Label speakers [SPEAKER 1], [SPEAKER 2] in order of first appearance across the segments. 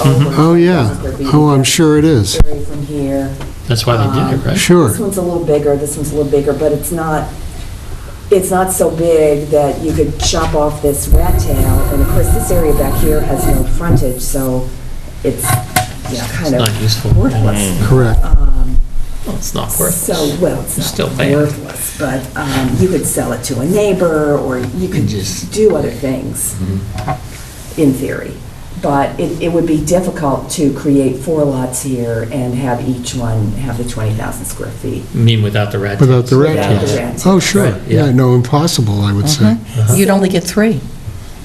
[SPEAKER 1] over.
[SPEAKER 2] Oh, yeah.
[SPEAKER 1] Mm-hmm. They're being
[SPEAKER 2] Oh, I'm sure it is.
[SPEAKER 1] carried From here.
[SPEAKER 3] That's why they did it, right?
[SPEAKER 2] Sure.
[SPEAKER 1] This one's a little bigger, this one's a little bigger, but it's not, it's not so big that you could chop off this rat tail. And of course, this area back here has no frontage, so it's, you know, kind
[SPEAKER 3] It's not useful.
[SPEAKER 1] of worthless.
[SPEAKER 2] Correct.
[SPEAKER 1] Um,
[SPEAKER 3] Well, it's not worth
[SPEAKER 1] So,
[SPEAKER 3] it.
[SPEAKER 1] well, it's
[SPEAKER 3] Still
[SPEAKER 1] not
[SPEAKER 3] bad.
[SPEAKER 1] worthless, but um, you could sell it to a neighbor, or you could
[SPEAKER 3] Just- Mm-hmm.
[SPEAKER 1] do other things, in theory. But it, it would be difficult to create four lots here and have each one have the 20,000 square feet.
[SPEAKER 3] I mean, without the rat.
[SPEAKER 2] Without the rat
[SPEAKER 3] tails.
[SPEAKER 1] Without the
[SPEAKER 3] Yeah.
[SPEAKER 1] rat tails.
[SPEAKER 2] Oh, sure.
[SPEAKER 3] Right, yeah.
[SPEAKER 2] Yeah, no, impossible, I would say.
[SPEAKER 1] Mm-hmm.
[SPEAKER 3] Uh-huh.
[SPEAKER 4] You'd only get three.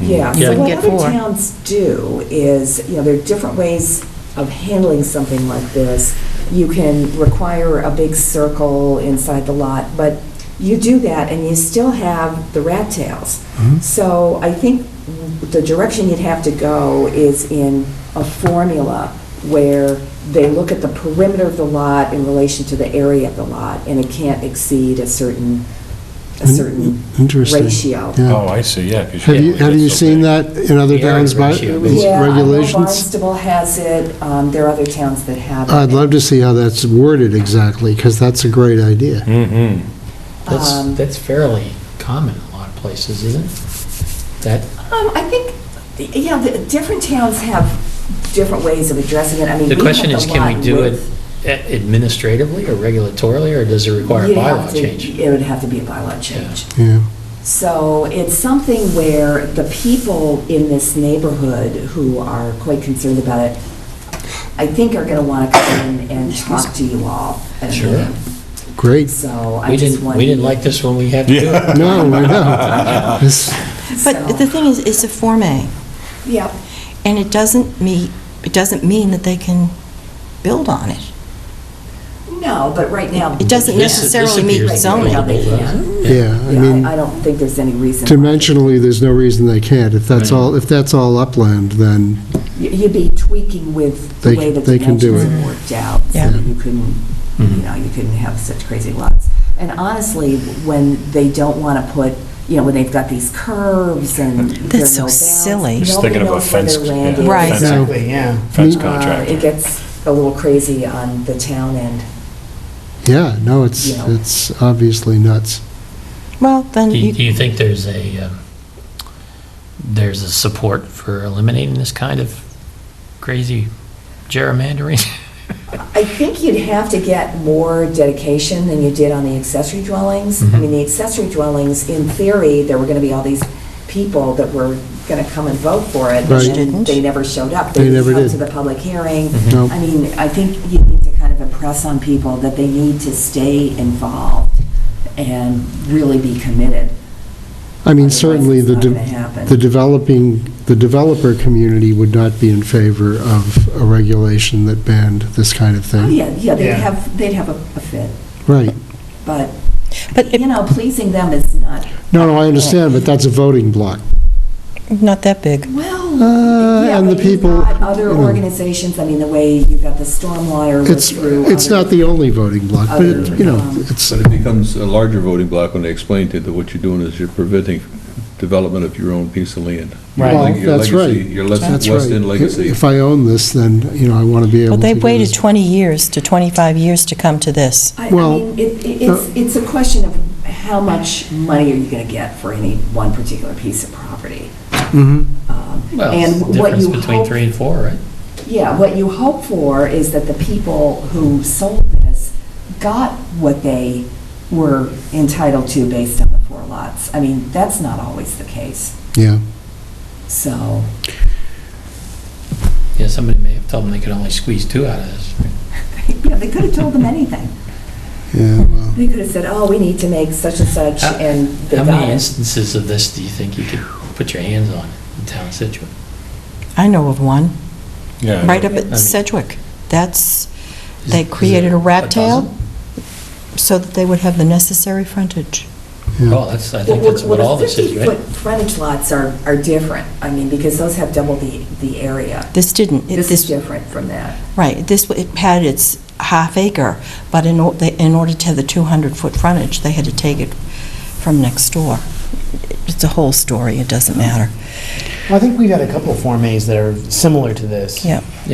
[SPEAKER 1] Yeah,
[SPEAKER 3] You
[SPEAKER 1] so
[SPEAKER 3] wouldn't
[SPEAKER 1] what
[SPEAKER 4] get
[SPEAKER 1] other
[SPEAKER 4] four.
[SPEAKER 1] towns do is, you know, there are different ways of handling something like this. You can require a big circle inside the lot, but you do that and you still have the rat tails. So I think the direction you'd have to go is in a formula where they look at the perimeter of the lot in relation to the area of the lot, and it can't exceed a certain, a certain
[SPEAKER 2] Interesting.
[SPEAKER 1] ratio.
[SPEAKER 2] Yeah.
[SPEAKER 5] Oh, I see, yeah. 'cause
[SPEAKER 2] Have you,
[SPEAKER 5] usually
[SPEAKER 2] have
[SPEAKER 5] it's
[SPEAKER 2] you
[SPEAKER 5] so
[SPEAKER 2] seen
[SPEAKER 5] big.
[SPEAKER 2] that in other
[SPEAKER 3] Area
[SPEAKER 2] towns by
[SPEAKER 3] ratio.
[SPEAKER 2] these
[SPEAKER 1] Yeah, I know
[SPEAKER 2] regulations?
[SPEAKER 1] Barnstable has it, um, there are other towns that have it.
[SPEAKER 2] I'd love to see how that's worded exactly, because that's a great idea.
[SPEAKER 5] Mhm.
[SPEAKER 1] Um,
[SPEAKER 3] That's, that's fairly common in a lot of places, isn't it? That,
[SPEAKER 1] Um, I think, yeah, the, different towns have different ways of addressing it, I mean.
[SPEAKER 3] the
[SPEAKER 1] we
[SPEAKER 3] question
[SPEAKER 1] have
[SPEAKER 3] is,
[SPEAKER 1] the
[SPEAKER 3] can we
[SPEAKER 1] lot
[SPEAKER 3] do it
[SPEAKER 1] width.
[SPEAKER 3] a- administratively or regulatorily, or does it require a
[SPEAKER 1] You'd have
[SPEAKER 3] bylaw
[SPEAKER 1] to-
[SPEAKER 3] change?
[SPEAKER 1] It would have to be a bylaw change.
[SPEAKER 2] Yeah.
[SPEAKER 1] So it's something where the people in this neighborhood who are quite concerned about it, I think are gonna wanna come in and talk to you all. at a
[SPEAKER 3] Sure.
[SPEAKER 1] meeting.
[SPEAKER 2] Great.
[SPEAKER 1] So I
[SPEAKER 3] We
[SPEAKER 1] just
[SPEAKER 3] didn't,
[SPEAKER 1] wanted.
[SPEAKER 3] we didn't like this one, we had to do it.
[SPEAKER 2] No, I know. This-
[SPEAKER 1] so-
[SPEAKER 6] But the thing is, it's a Form A,
[SPEAKER 1] Yeah,
[SPEAKER 6] and it doesn't meet, it doesn't mean that they can build on it.
[SPEAKER 1] no, but right now.
[SPEAKER 6] It doesn't
[SPEAKER 3] This- this
[SPEAKER 6] necessarily meet
[SPEAKER 3] appears to be
[SPEAKER 6] zoning.
[SPEAKER 3] buildable, doesn't it?
[SPEAKER 2] Yeah, I
[SPEAKER 1] Yeah, I
[SPEAKER 2] mean,
[SPEAKER 1] I don't think there's any reason.
[SPEAKER 2] dimensionally, there's no reason they can't. If that's
[SPEAKER 3] Right.
[SPEAKER 2] all, if that's all upland, then
[SPEAKER 1] You- You'd be tweaking with the
[SPEAKER 2] They-
[SPEAKER 1] way the
[SPEAKER 2] they can do
[SPEAKER 1] dimensions
[SPEAKER 2] it.
[SPEAKER 1] have worked out. so
[SPEAKER 6] Yeah.
[SPEAKER 1] that You couldn't,
[SPEAKER 5] Mm-hmm.
[SPEAKER 1] you know, you couldn't have such crazy lots. And honestly, when they don't want to put, you know, when they've got these curves and there are
[SPEAKER 6] That's
[SPEAKER 1] no
[SPEAKER 6] so
[SPEAKER 1] bounds,
[SPEAKER 6] silly.
[SPEAKER 5] Just
[SPEAKER 1] nobody
[SPEAKER 5] thinking of a
[SPEAKER 1] knows where
[SPEAKER 5] fence.
[SPEAKER 1] their land
[SPEAKER 5] yeah,
[SPEAKER 1] is.
[SPEAKER 6] Right.
[SPEAKER 5] fence-
[SPEAKER 2] No.
[SPEAKER 7] Exactly, yeah.
[SPEAKER 5] Fence
[SPEAKER 1] Uh,
[SPEAKER 5] contractor.
[SPEAKER 1] It gets a little crazy on the town end.
[SPEAKER 2] Yeah, no, it's,
[SPEAKER 1] You know.
[SPEAKER 2] it's obviously nuts.
[SPEAKER 6] Well, then,
[SPEAKER 3] Do you, do
[SPEAKER 6] you-
[SPEAKER 3] you think there's a, um, there's a support for eliminating this kind of crazy gerrymandering?
[SPEAKER 1] I think you'd have to get more dedication than you did on the accessory dwellings. I
[SPEAKER 2] Mm-hmm.
[SPEAKER 3] Mhm.
[SPEAKER 1] mean, the accessory dwellings, in theory, there were going to be all these people that were going to come and vote for it.
[SPEAKER 2] Right.
[SPEAKER 1] and then They never showed up.
[SPEAKER 2] They never
[SPEAKER 1] didn't come
[SPEAKER 2] did. Mm-hmm.
[SPEAKER 1] to the public hearing.
[SPEAKER 5] Mm-hmm.
[SPEAKER 3] Mhm.
[SPEAKER 2] No.
[SPEAKER 1] I mean, I think you need to kind of impress on people that they need to stay involved and really be committed.
[SPEAKER 2] I mean,
[SPEAKER 1] Otherwise,
[SPEAKER 2] certainly,
[SPEAKER 1] it's
[SPEAKER 2] the,
[SPEAKER 1] not
[SPEAKER 2] de-
[SPEAKER 1] gonna happen.
[SPEAKER 2] the developing, the developer community would not be in favor of a regulation that banned this kind of
[SPEAKER 1] Oh,
[SPEAKER 2] thing.
[SPEAKER 1] yeah, yeah, they'd
[SPEAKER 7] Yeah.
[SPEAKER 1] have, they'd have a a fit,
[SPEAKER 2] Right.
[SPEAKER 1] but,
[SPEAKER 6] but
[SPEAKER 1] you
[SPEAKER 6] it-
[SPEAKER 1] know, pleasing them is not,
[SPEAKER 2] No, no, I understand, but that's a voting block.
[SPEAKER 6] not that big.
[SPEAKER 1] Well,
[SPEAKER 2] Uh,
[SPEAKER 1] yeah,
[SPEAKER 2] and the
[SPEAKER 1] but you've
[SPEAKER 2] people,
[SPEAKER 1] got other
[SPEAKER 2] you know.
[SPEAKER 1] organizations, I mean, the way you've got the stormwater was
[SPEAKER 2] It's,
[SPEAKER 1] through.
[SPEAKER 2] it's
[SPEAKER 1] other-
[SPEAKER 2] not the only voting block, but, it-
[SPEAKER 1] other,
[SPEAKER 2] you know,
[SPEAKER 1] um,
[SPEAKER 2] it's,
[SPEAKER 8] But it becomes a larger voting block when they explain to you that what you're doing is you're preventing development of your own piece of land. Your
[SPEAKER 7] Right.
[SPEAKER 2] Well,
[SPEAKER 8] leg- your
[SPEAKER 2] that's
[SPEAKER 8] legacy-
[SPEAKER 2] right.
[SPEAKER 8] Your les-
[SPEAKER 2] that's
[SPEAKER 8] West
[SPEAKER 2] right.
[SPEAKER 8] End legacy.
[SPEAKER 2] If I own this, then, you know, I want to be able
[SPEAKER 6] Well,
[SPEAKER 2] to.
[SPEAKER 6] they
[SPEAKER 2] do
[SPEAKER 6] waited
[SPEAKER 2] this.
[SPEAKER 6] 20 years to 25 years to come to this.
[SPEAKER 1] I I
[SPEAKER 2] well, uh,
[SPEAKER 1] mean, it- it- it's, it's a question of how much money are you going to get for any one particular piece of property?
[SPEAKER 2] Mhm.
[SPEAKER 1] Um,
[SPEAKER 3] Well, it's
[SPEAKER 1] And
[SPEAKER 3] the
[SPEAKER 1] what
[SPEAKER 3] difference
[SPEAKER 1] you
[SPEAKER 3] between
[SPEAKER 1] hope,
[SPEAKER 3] three and four, right?
[SPEAKER 1] yeah, what you hope for is that the people who sold this got what they were entitled to based on the four lots. I mean, that's not always the case,
[SPEAKER 2] Yeah.
[SPEAKER 1] so.
[SPEAKER 3] Yeah, somebody may have told them they could only squeeze two out of this.
[SPEAKER 1] Yeah, they could have told them anything.
[SPEAKER 2] Yeah, well,
[SPEAKER 1] They could have said, oh, we need to make such and such,
[SPEAKER 3] How-
[SPEAKER 1] and they
[SPEAKER 3] How
[SPEAKER 1] got
[SPEAKER 3] many
[SPEAKER 1] it.
[SPEAKER 3] instances of this do you think you could put your hands on in town of Situate?
[SPEAKER 6] I know of one,
[SPEAKER 5] Yeah.
[SPEAKER 6] right up
[SPEAKER 3] I
[SPEAKER 6] at
[SPEAKER 3] mean-
[SPEAKER 6] Sedgwick. That's,
[SPEAKER 3] Is-
[SPEAKER 6] they
[SPEAKER 3] is it
[SPEAKER 6] created a rat tail
[SPEAKER 3] dozen?
[SPEAKER 6] so that they would have the necessary frontage.
[SPEAKER 2] yeah.
[SPEAKER 3] Oh, that's, I
[SPEAKER 1] Well,
[SPEAKER 3] think that's what all this is,
[SPEAKER 1] Well, the
[SPEAKER 3] right?
[SPEAKER 1] 50-foot frontage lots are, are different, I mean, because those have double the, the area.
[SPEAKER 6] This didn't. It-
[SPEAKER 1] This is different from that.
[SPEAKER 6] Right, this, it had its half acre, but in, or- they- in order to have the 200-foot frontage, they had to take it from next door. It's a whole story, it doesn't matter.
[SPEAKER 7] Well, I think we've had a couple of Form As that are similar to this.
[SPEAKER 6] Yeah.